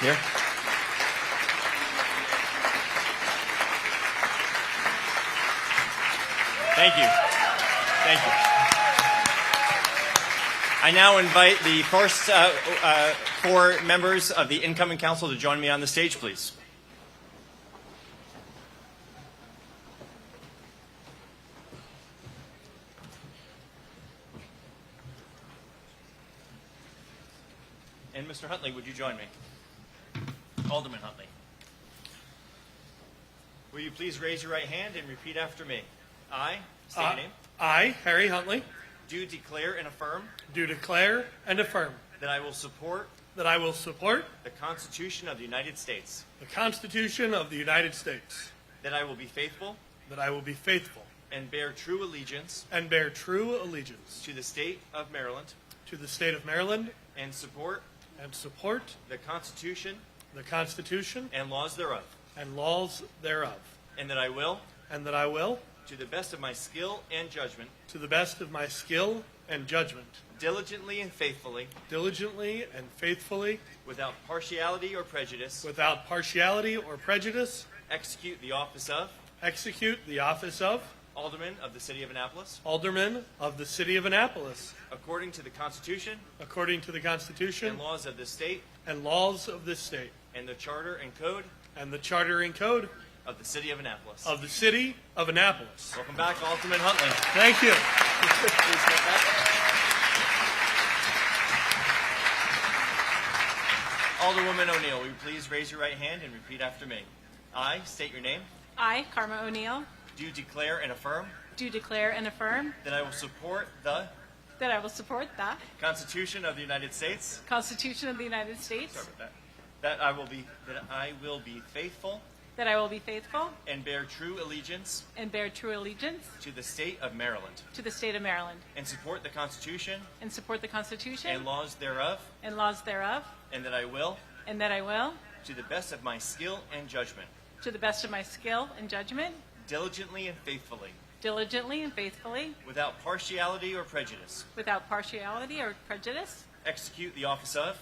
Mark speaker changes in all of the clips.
Speaker 1: Here. Thank you. Thank you. I now invite the first uh, uh, four members of the incoming council to join me on the stage, please. And Mr. Huntley, would you join me? Alderman Huntley. Will you please raise your right hand and repeat after me? I, state your
Speaker 2: I-
Speaker 1: name,
Speaker 2: Uh, I, Harry Huntley,
Speaker 1: do declare and affirm
Speaker 2: do declare and affirm
Speaker 1: that I will support
Speaker 2: that I will support
Speaker 1: the Constitution of the United States,
Speaker 2: the Constitution of the United States,
Speaker 1: that I will be faithful
Speaker 2: that I will be faithful
Speaker 1: and bear true allegiance
Speaker 2: and bear true allegiance
Speaker 1: to the state of Maryland,
Speaker 2: to the state of Maryland,
Speaker 1: and support
Speaker 2: and support
Speaker 1: the Constitution
Speaker 2: the Constitution
Speaker 1: and laws thereof,
Speaker 2: and laws thereof,
Speaker 1: and that I will,
Speaker 2: and that I will,
Speaker 1: to the best of my skill and judgment,
Speaker 2: to the best of my skill and judgment,
Speaker 1: diligently and faithfully,
Speaker 2: diligently and faithfully,
Speaker 1: without partiality or prejudice,
Speaker 2: without partiality or prejudice,
Speaker 1: execute the office of
Speaker 2: execute the office of
Speaker 1: Alderman of the City of Annapolis
Speaker 2: Alderman of the City of Annapolis,
Speaker 1: according to the Constitution
Speaker 2: according to the Constitution
Speaker 1: and laws of this state
Speaker 2: and laws of this state,
Speaker 1: and the Charter and Code
Speaker 2: and the Charter and Code
Speaker 1: of the City of Annapolis.
Speaker 2: of the City of Annapolis.
Speaker 1: Welcome back, Alderman Huntley.
Speaker 2: Thank you.
Speaker 1: Please step back. Alderwoman O'Neill, will you please raise your right hand and repeat after me? I state your name.
Speaker 3: I, Karma O'Neill,
Speaker 1: Do declare and affirm
Speaker 3: do declare and affirm
Speaker 1: that I will support the
Speaker 3: that I will support the
Speaker 1: Constitution of the United States.
Speaker 3: Constitution of the United States,
Speaker 1: Sorry about that. That I will be that I will be faithful
Speaker 3: that I will be faithful
Speaker 1: and bear true allegiance
Speaker 3: and bear true allegiance
Speaker 1: to the state of Maryland
Speaker 3: to the state of Maryland,
Speaker 1: and support the Constitution
Speaker 3: and support the Constitution
Speaker 1: and laws thereof,
Speaker 3: and laws thereof,
Speaker 1: and that I will,
Speaker 3: and that I will,
Speaker 1: to the best of my skill and judgment,
Speaker 3: to the best of my skill and judgment,
Speaker 1: diligently and faithfully,
Speaker 3: diligently and faithfully,
Speaker 1: without partiality or prejudice,
Speaker 3: without partiality or prejudice,
Speaker 1: execute the office of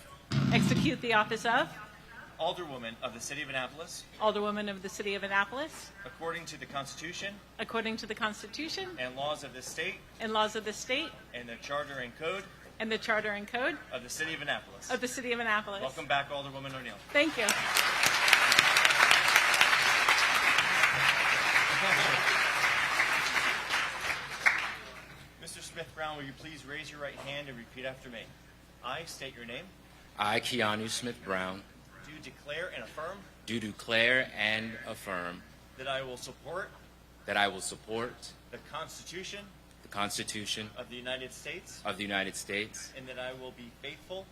Speaker 3: execute the office of
Speaker 1: Alderwoman of the City of Annapolis
Speaker 3: Alderwoman of the City of Annapolis
Speaker 1: according to the Constitution
Speaker 3: according to the Constitution
Speaker 1: and laws of this state
Speaker 3: and laws of the state
Speaker 1: and the Charter and Code
Speaker 3: and the Charter and Code
Speaker 1: of the City of Annapolis.
Speaker 3: of the City of Annapolis.
Speaker 1: Welcome back, Alderwoman O'Neill.
Speaker 3: Thank you.
Speaker 1: Mr. Smith Brown, will you please raise your right hand and repeat after me? I state your name.
Speaker 4: I, Keanu Smith Brown,
Speaker 1: Do declare and affirm
Speaker 4: do declare and affirm
Speaker 1: that I will support
Speaker 4: that I will support
Speaker 1: the Constitution
Speaker 4: the Constitution
Speaker 1: of the United States
Speaker 4: of the United States
Speaker 1: and that I will be faithful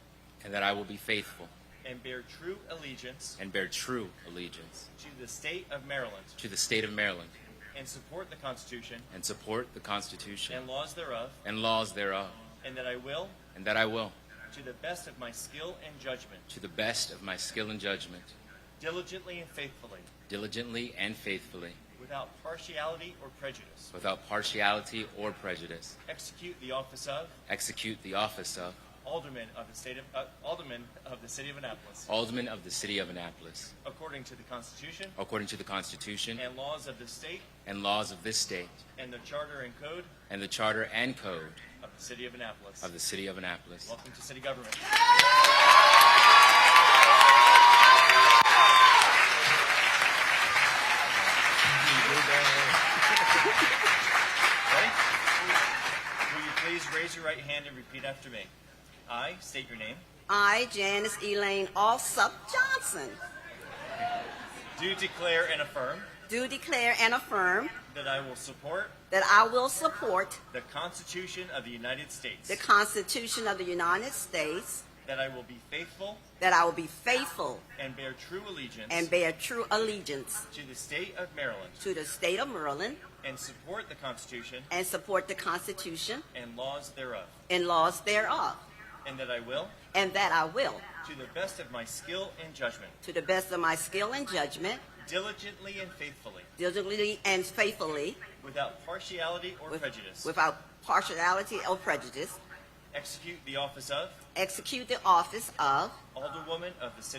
Speaker 4: and that I will be faithful
Speaker 1: and bear true allegiance
Speaker 4: and bear true allegiance
Speaker 1: to the state of Maryland
Speaker 4: to the state of Maryland
Speaker 1: and support the Constitution
Speaker 4: and support the Constitution
Speaker 1: and laws thereof,
Speaker 4: and laws thereof,
Speaker 1: and that I will,
Speaker 4: and that I will,
Speaker 1: to the best of my skill and judgment,
Speaker 4: to the best of my skill and judgment,
Speaker 1: diligently and faithfully,
Speaker 4: diligently and faithfully,
Speaker 1: without partiality or prejudice,
Speaker 4: without partiality or prejudice,
Speaker 1: execute the office of
Speaker 4: execute the office of
Speaker 1: Alderman of the state of uh, Alderman of the City of Annapolis,
Speaker 4: Alderman of the City of Annapolis,
Speaker 1: according to the Constitution
Speaker 4: according to the Constitution
Speaker 1: and laws of the state
Speaker 4: and laws of this state
Speaker 1: and the Charter and Code
Speaker 4: and the Charter and Code
Speaker 1: of the City of Annapolis.
Speaker 4: of the City of Annapolis.
Speaker 1: Welcome to city government. Ready? Will you please raise your right hand and repeat after me? I state your name.
Speaker 5: I, Janice Elaine Alsop Johnson,
Speaker 1: Do declare and affirm
Speaker 5: do declare and affirm
Speaker 1: that I will support
Speaker 5: that I will support
Speaker 1: the Constitution of the United States,
Speaker 5: the Constitution of the United States,
Speaker 1: that I will be faithful
Speaker 5: that I will be faithful
Speaker 1: and bear true allegiance
Speaker 5: and bear true allegiance
Speaker 1: to the state of Maryland,
Speaker 5: to the state of Maryland,
Speaker 1: and support the Constitution
Speaker 5: and support the Constitution
Speaker 1: and laws thereof,
Speaker 5: and laws thereof,
Speaker 1: and that I will
Speaker 5: and that I will,
Speaker 1: To the best of my skill and judgment,
Speaker 5: to the best of my skill and judgment,
Speaker 1: diligently and faithfully,
Speaker 5: diligently and faithfully,
Speaker 1: without partiality or
Speaker 5: with-
Speaker 1: prejudice,
Speaker 5: without partiality or prejudice,
Speaker 1: execute the office of
Speaker 5: execute the office of
Speaker 1: Alderwoman of the City